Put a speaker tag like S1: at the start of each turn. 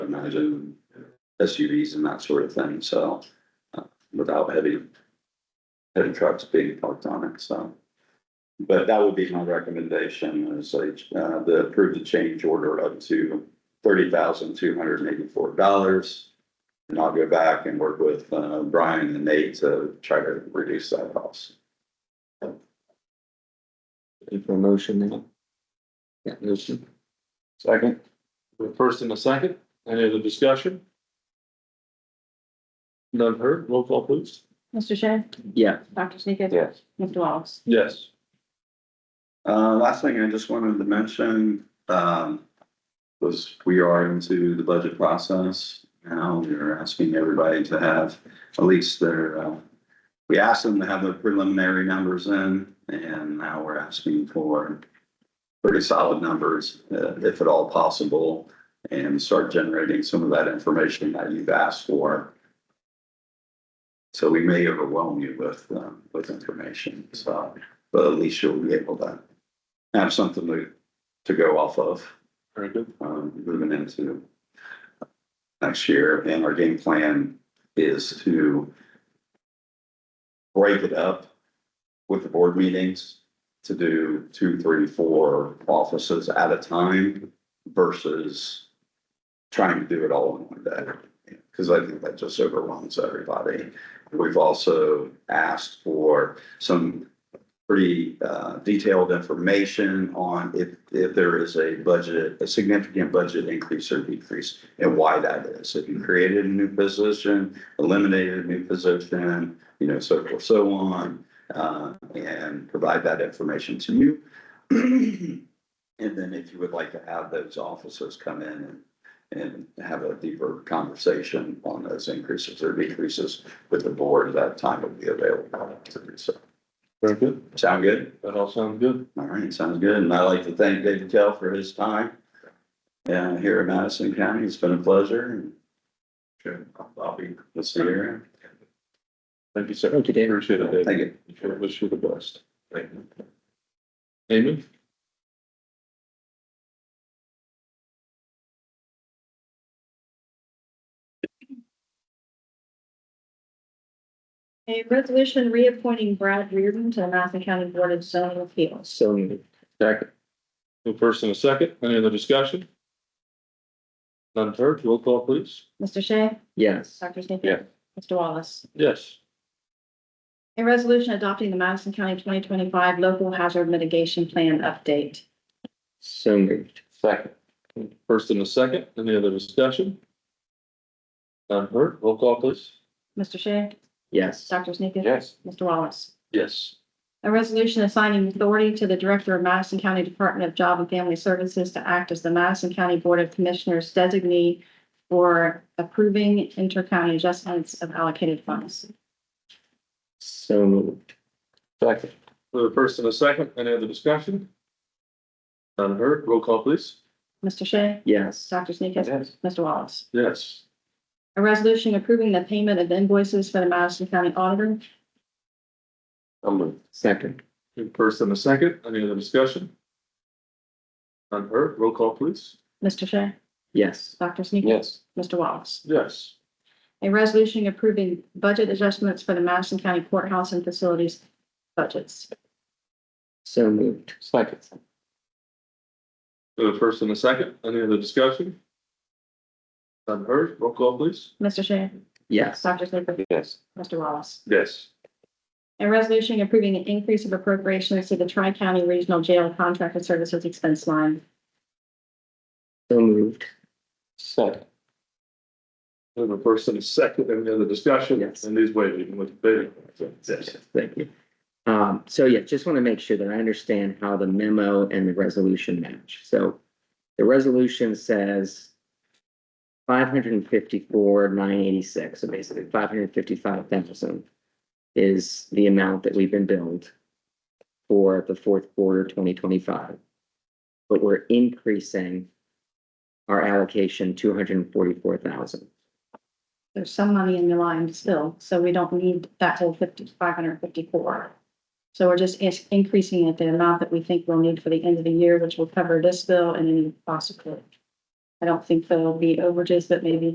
S1: cars and SUVs and that sort of thing, so, uh, without heavy, heavy trucks being parked on it, so. But that would be my recommendation, is like, uh, the approve the change order up to thirty thousand two hundred and eighty-four dollars. And I'll go back and work with, uh, Brian and Nate to try to reduce that cost.
S2: Any for a motion then? Yeah, motion. Second. First and a second, any other discussion? None heard, roll call please.
S3: Mr. Shea?
S2: Yeah.
S3: Dr. Sneakus?
S2: Yes.
S3: Mr. Wallace?
S2: Yes.
S1: Uh, last thing I just wanted to mention, um, was we are into the budget process. Now we're asking everybody to have at least their, uh, we asked them to have their preliminary numbers in and now we're asking for pretty solid numbers, uh, if at all possible, and start generating some of that information that you've asked for. So we may overwhelm you with, um, with information, so, but at least you'll be able to have something to, to go off of,
S2: Very good.
S1: um, moving into next year, and our game plan is to break it up with the board meetings to do two, three, four offices at a time versus trying to do it all in one day. Cause I think that just overwhelms everybody. We've also asked for some pretty uh, detailed information on if, if there is a budget, a significant budget increase or decrease and why that is. If you created a new position, eliminated a new position, you know, so forth, so on, uh, and provide that information to you. And then if you would like to have those officers come in and, and have a deeper conversation on those increases or decreases with the board, that time would be available. to do So,
S2: Very good.
S1: sound good?
S2: That all sounds good.
S1: All right, sounds good. And I'd like to thank David Kell for his time. uh, here in Madison County. It's been a pleasure. Sure. I'll be. We'll see you around.
S2: Thank you, sir. Okay, David. Appreciate it,
S1: Thank
S2: David.
S1: you.
S2: Wish you the best. Thank you. Amy?
S3: A resolution reappointing Brad Reardon to the Madison County Board of Zoning Appeals.
S2: So moved. Second. The first and a second, any other discussion? None heard, roll call please.
S3: Mr. Shea?
S4: Yes,
S3: Dr. Sneakus?
S2: Yeah.
S3: Mr. Wallace?
S2: Yes.
S3: A resolution adopting the Madison County twenty twenty-five local hazard mitigation plan update.
S4: so moved.
S2: Second. First and a second, any other discussion? None heard, roll call please.
S3: Mr. Shea?
S4: Yes,
S3: Dr. Sneakus?
S2: Yes.
S3: Mr. Wallace?
S2: Yes.
S3: A resolution assigning authority to the Director of Madison County Department of Job and Family Services to act as the Madison County Board of Commissioners designee for approving inter-county adjustments of allocated funds.
S4: so moved.
S2: Second. The first and a second, any other discussion? None heard, roll call please.
S3: Mr. Shea?
S4: Yes,
S3: Dr. Sneakus?
S2: Yes.
S3: Mr. Wallace?
S2: Yes.
S3: A resolution approving the payment of invoices for the Madison County Auditor.
S2: I'm moved.
S4: second.
S2: First and a second, any other discussion? None heard, roll call please.
S3: Mr. Shea?
S4: Yes,
S3: Dr. Sneakus? Mr. Wallace?
S2: Yes.
S3: A resolution approving budget adjustments for the Madison County Courthouse and Facilities budgets.
S4: so moved.
S2: Second. The first and the second, any other discussion? None heard, roll call please.
S3: Mr. Shea?
S4: Yes,
S3: Dr. Sneakus?
S2: Yes.
S3: Mr. Wallace?
S2: Yes.
S3: A resolution approving an increase of appropriations to the Tri-County Regional Jail Contracted Services Expense Line.
S4: so moved.
S2: Second. The first and the second, any other discussion?
S4: Yes.
S2: And these waiving even with the bidding. Yes.
S4: Thank you. Um, so yeah, just want to make sure that I understand how the memo and the resolution match. So the resolution says five hundred and fifty-four, nine eighty-six, so basically five hundred and fifty-five thousand is the amount that we've been billed for the fourth quarter twenty twenty-five. But we're increasing our allocation two hundred and forty-four thousand.
S3: There's some money in the line still, so we don't need that whole fifty, five hundred fifty-four. So we're just is- increasing it the amount that we think we'll need for the end of the year, which will cover this bill and any possible. I don't think there'll be overages, but maybe